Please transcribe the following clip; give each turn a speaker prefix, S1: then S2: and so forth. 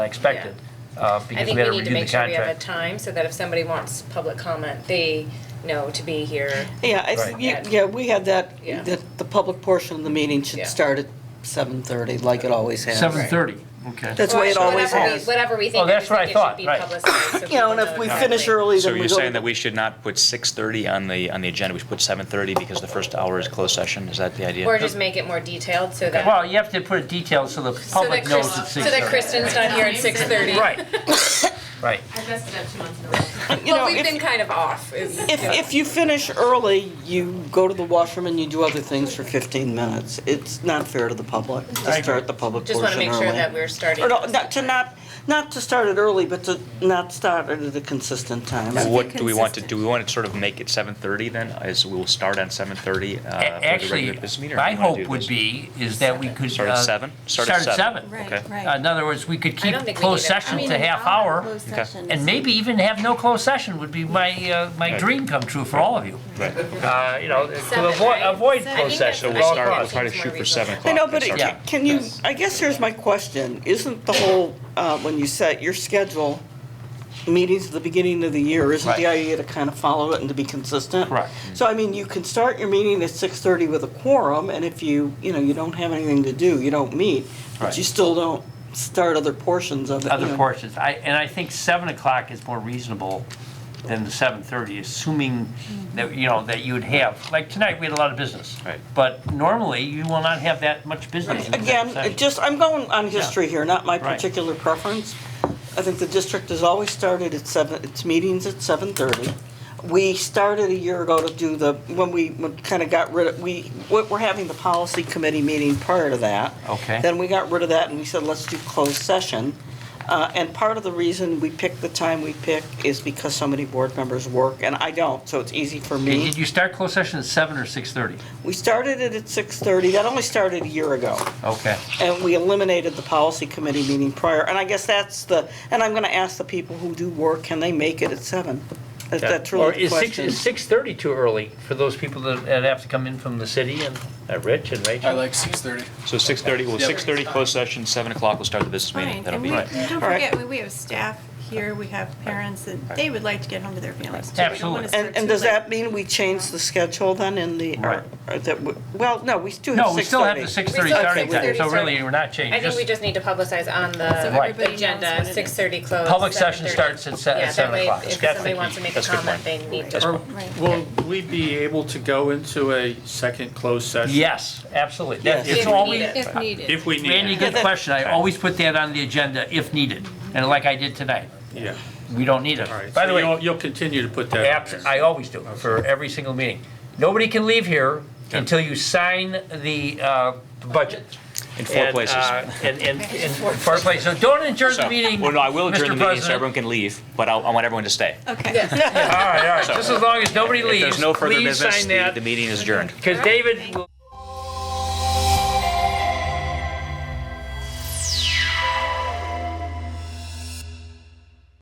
S1: I expected, uh,
S2: I
S1: because we
S2: think we
S1: had to
S2: need to
S1: review
S2: make
S1: the
S2: sure we have a
S1: contract.
S2: time so that if somebody wants public comment, they know to be here.
S3: Yeah, I, s-
S1: Right.
S3: yeah, yeah, we had that,
S2: Yeah.
S3: that the public portion of the meeting should
S2: Yeah.
S3: start at 7:30, like it always has.
S1: Seven thirty, okay.
S3: That's the way it
S2: Well,
S3: always
S2: whatever we-
S3: has.
S2: Whatever we think.
S1: Oh, that's
S2: just
S1: what
S2: think
S1: I
S2: it should
S1: thought,
S2: be
S1: right.
S2: publicized so
S3: You know,
S2: people
S3: and if we
S2: exactly.
S3: finish early,
S4: So
S3: then we
S4: you're
S3: go
S4: saying
S3: to
S4: that we should not put 6:30 on the, on the agenda, we should put 7:30 because the first hour is closed session, is that the idea?
S2: Or just make it more detailed so that.
S1: Well, you have to put it detailed so the
S2: so
S1: public
S2: that
S1: knows
S2: Chris-
S1: it's
S2: So
S1: six
S2: that
S1: thirty.
S2: Kristen's not here at six thirty.
S1: Right, right.
S5: I messed it up two months in a row.
S3: You know,
S2: But we've
S3: if-
S2: been kind of off. is-
S3: If, if you finish early, you go to the washroom and you do other things for 15 minutes. It's not fair to the public
S1: I
S3: to
S1: agree.
S3: start the public
S2: Just
S3: portion
S2: want to
S3: early.
S2: make sure that we're starting.
S3: Or no, not, to not, not to start it early, but to not start it at a consistent time.
S4: What do we want to, do we want to sort of make it 7:30 then, as we will start on 7:30 uh, for the regular
S1: Actually,
S4: business meeting? or
S1: my
S4: do you wanna
S1: hope
S4: do
S1: would
S4: this?
S1: be is that we could.
S4: Start at
S1: uh,
S4: seven? Start at
S1: Start at
S4: seven.
S1: seven.
S4: Okay.
S5: Right,
S1: Uh, In
S5: right.
S1: other words, we could
S2: I
S1: keep
S2: don't think we
S1: closed
S2: need an
S1: session
S2: hour.
S1: to half hour,
S5: Closed
S4: Okay.
S5: session
S1: and
S5: is-
S1: maybe even have no closed session would be my, uh, my
S4: Right.
S1: dream come true for all of you.
S4: Right.
S1: Uh, You know, to
S2: Seven,
S1: avoid,
S2: right?
S1: avoid
S2: Seven.
S1: closed
S2: I think
S1: session.
S4: So
S1: at
S4: we'll
S1: all
S2: that's- think
S4: start, we'll
S1: costs.
S4: try to
S2: it's
S4: shoot
S2: more
S4: for 7
S2: reasonable.
S3: I
S4: o'clock.
S3: know, but
S4: That's
S3: it-
S4: our-
S1: Yeah.
S3: can you, I guess here's my question. Isn't the whole, uh, when you set your schedule, meetings at the beginning of the year, isn't the
S1: Right.
S3: idea to kind of follow it and to be consistent?
S1: Correct.
S3: So I mean, you can start your meeting at 6:30 with a quorum, and if you, you know, you don't have anything to do, you don't meet, but
S1: Right.
S3: you still don't start other portions of it. you
S1: other
S3: know.
S1: portions. I, and I think seven o'clock is more reasonable than the seven thirty, assuming
S3: Mm-hmm.
S1: that, you know, that you would have, like tonight, we had a lot of business.
S4: Right.
S1: But normally, you will not have that much business in the
S3: Again,
S1: next
S3: it
S1: session.
S3: just, I'm going on history here, not my
S1: Right.
S3: particular preference. I think the district has always started at seven, its meetings at seven thirty. We started a year ago to do the, when we kind of got rid of, we, we're we're having the policy committee meeting prior to that.
S1: Okay.
S3: Then we got rid of that and we said, let's do closed session. Uh, and part of the reason we picked the time we pick is because so many board members work and I don't, so it's easy for me.
S1: Did did you start closed session at seven or six thirty?
S3: We started it at six thirty, that only started a year ago.
S1: Okay.
S3: And we eliminated the policy committee meeting prior, and I guess that's the, and I'm gonna ask the people who do work, can they make it at seven? That- That's
S1: Or
S3: really the
S1: is six,
S3: question.
S1: is six thirty too early for those people that that have to come in from the city and, uh, Rich and
S6: I
S1: Rachel?
S6: like six thirty.
S4: So 6:30, well,
S6: Yep.
S4: 6:30 closed session, 7 o'clock we'll start the business meeting.
S5: Fine,
S4: That'll
S5: and
S4: be
S5: we,
S4: it.
S5: and don't
S3: All right.
S5: forget, we- we have staff here, we have parents, and they would like to get home to their families. too. We don't
S1: Absolutely.
S5: wanna start
S3: And, and
S5: too
S3: does
S5: late.
S3: that mean we change the schedule then in the,
S1: Right.
S3: or, or that, w- well, no, we still have six thirty.
S1: No, we still have the six thirty
S2: We still have
S1: starting time,
S2: 6:30
S1: so really,
S2: starting.
S1: we're not
S2: I
S1: changing.
S2: think we just need to publicize on
S5: So
S2: the
S5: everybody knows
S2: agenda,
S5: what it is.
S2: six thirty close.
S1: Public session
S2: 7:30.
S1: starts at se-
S2: Yeah,
S1: at
S2: that
S1: 7
S2: way,
S1: o'clock.
S2: If
S1: Yeah,
S2: somebody wants to make a
S4: that's a good
S2: comment, they
S4: point.
S2: need
S4: That's
S2: to.
S4: fine.
S6: Or
S5: Right.
S6: will we be able to go into a second closed session?
S1: Yes, absolutely. That-
S3: Yes.
S1: It's
S2: If we
S1: always,
S2: need it.
S7: If needed.
S6: If we
S1: Randy,
S6: need it.
S1: good question. I always put that on the agenda if needed, and like I did tonight.
S6: Yeah,
S1: We don't need it.
S6: all right.
S1: By the
S6: So
S1: way,
S6: you'll- You'll continue to put that on
S1: abs-
S6: there.
S1: I always do for every single meeting. Nobody can leave here until you sign the uh, budget.
S4: In four
S1: And,
S4: places.
S1: uh, And, and, and four places. So don't adjourn the
S4: So-
S1: meeting,
S4: Well, no, I will adjourn the
S1: Mr.
S4: meeting so
S1: President.
S4: everyone can leave, but I'll- I want everyone to stay.
S5: Okay.
S1: All right, all right. Just as long as nobody
S4: If
S1: leaves,
S4: there's no further
S1: please
S4: business,
S1: sign
S4: the
S1: that.
S4: the meeting is adjourned.
S1: Because David will.